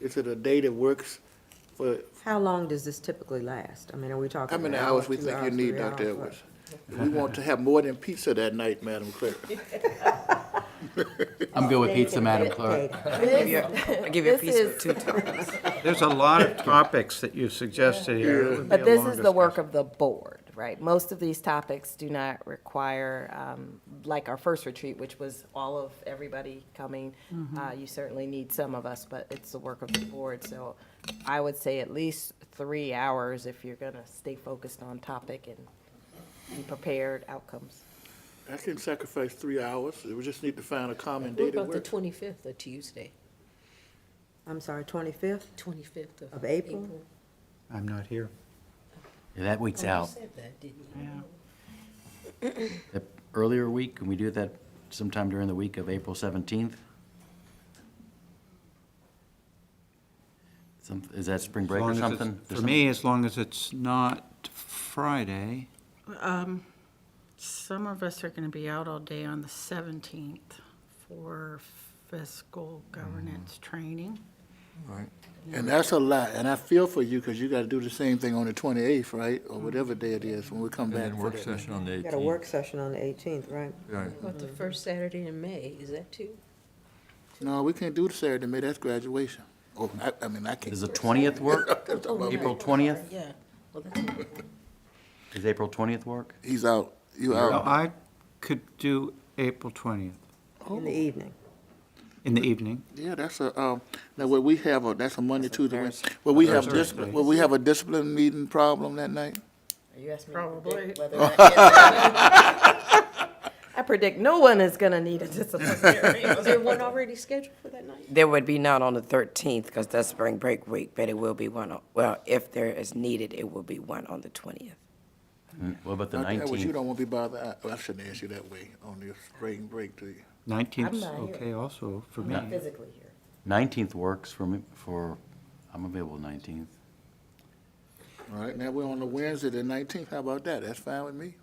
Is it a day that works for, How long does this typically last? I mean, are we talking? how many an hour, hours we two think you hours, need, three hours, Dr. what? Edwards? We want to have more than pizza that night, Madam Clerk. I'm good with pizza, Madam Clerk. I give you a piece of two. There's a lot of topics that you suggested here. It would be a But this long is the work discussion. of the board, right? Most of these topics do not require, um, like our first retreat, which was all of everybody coming. Uh, you certainly need some of us, but it's the work of the board, so I would say at least three hours if you're gonna stay focused on topic and be prepared outcomes. I can sacrifice three hours. We just need to find a common What day that about the works. twenty-fifth, a Tuesday, I'm sorry, twenty-fifth? twenty-fifth of? Of April? I'm not here. Yeah, That Oh, week's you out. said that, didn't you? The Earlier week, can we do that sometime during the week of April 17th? Some, is that spring As break long or as it's- something? For me, as long as it's not Friday, Um, Some of us are going to be out all day on the 17th for fiscal governance training. And that's a lot, and I feel for you, because you gotta do the same thing on the twenty-eighth, right? Or whatever day it is, when we come And back then for work that. session on the We eighteenth. got a work session on the eighteenth, right? Right, What About the first Saturday in May, is that too? No, we can't do the Saturday, May, that's graduation. Oh, I, I mean, I can't. Does the 20th work? Oh, no. April 20th? Yeah, well, that's, Does April 20th work? He's out, you Well, out. I could do April 20th In the Oh. evening. in the evening. Yeah, that's a, um, now, what we have, a that's a Monday, Tuesday, Wednesday. Thursday. Will we have Thursday. discipline, will we have a discipline meeting problem that night? Are you asking me? to predict Probably. whether or not- I predict no one is gonna need a disciplinary. is there one already scheduled for that night? There would be none on the 13th because that's spring break week, but it will be one, on well, if there is needed, it will be one on the 20th. What about the Dr. Edwards, You 19th? don't wanna be bothered, I, well, I shouldn't ask you that way on your spring break, do you? 19th's I'm not here. okay also for me. I'm physically here. 19th works for me, for, I'm available 19th. All right, now we're on the Wednesday, the nineteenth, how about that? That's fine with me.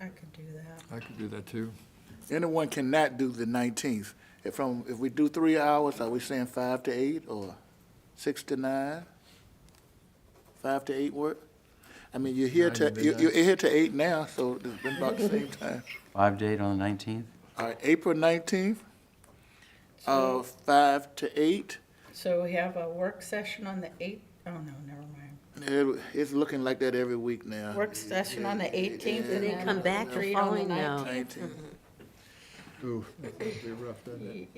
I could do that. I could do that too. Anyone cannot do the nineteenth. If from, if we do three hours, are we saying five to eight or six to nine? Five to eight work? I mean, you're here Nine to, to you're, you're midnight. here to eight now, so it's been about the same time. Five date on the 19th? All right, April nineteenth, uh, five to eight. So we have a work session on the 8th, oh no, never mind. It- It's looking like that every week now. Work session on the 18th and They then. come back the retreat on following now. 19th.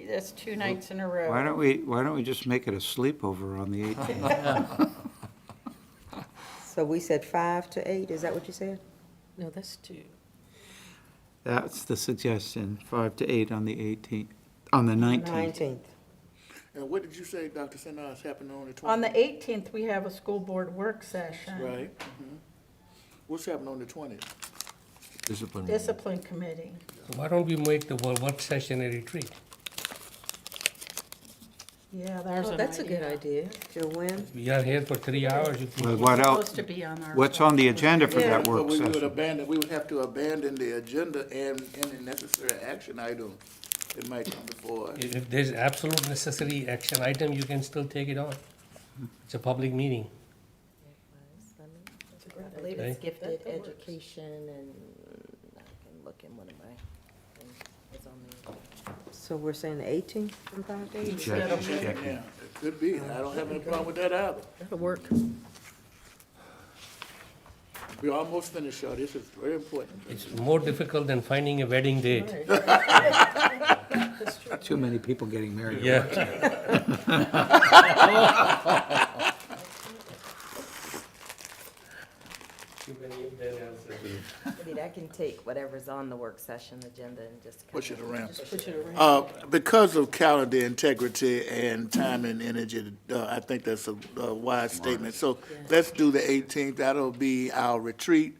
That's two nights in a row. Why don't we, why don't we just make it a sleepover on the 18th? So we said five to eight, is that what you said? No, that's two. That's the suggestion, 5 to 8 on the 18th, on the 19th. Nineteenth. And what did you say, Dr. Sinai, is happening on the twentieth? On the 18th, we have a school board work session, Right. mhm. What's happening on the twentieth? Discipline. discipline committee. Why don't we make the wo- work session a retreat? Yeah, there's Oh, an that's a good idea. idea. Till when? We are here for three hours. you can- Well, What Supposed else, to be on our. what's on the agenda for that But work we would session? abandon, we would have to abandon the agenda and any necessary action item that might come before. us. If if there's absolute necessary action item, you can still take it on. It's a public I meeting. believe it's gifted That works. education and I can look in one of my things. It's on the- So we're saying the eighteenth from five to eight? Judge Jackman. Yeah, it could be. I don't have any problem with that either. That'll work. We're almost finished, y'all. This is very important. It's more difficult than finding a wedding date. Too many people getting married. Yeah. I mean, I can take whatever's on the work session agenda and just. Push it kinda- around. Put it around. Uh, because of calendar integrity and time and energy, uh, I think that's a, a wise statement. So let's do the eighteenth. That'll be our retreat,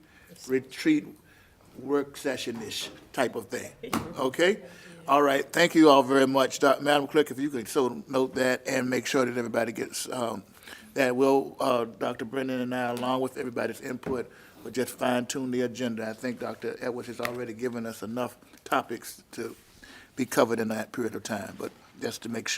retreat work session-ish type of thing. Okay? All right. Thank you all very much. Doc- Madam Clerk, if you could so note that and make sure that everybody gets, um, that will, uh, Dr. Brennan and I, along with everybody's input, will just fine tune the agenda. I think Dr. Edwards has already given us enough topics to be covered in that period of time, but just to make sure.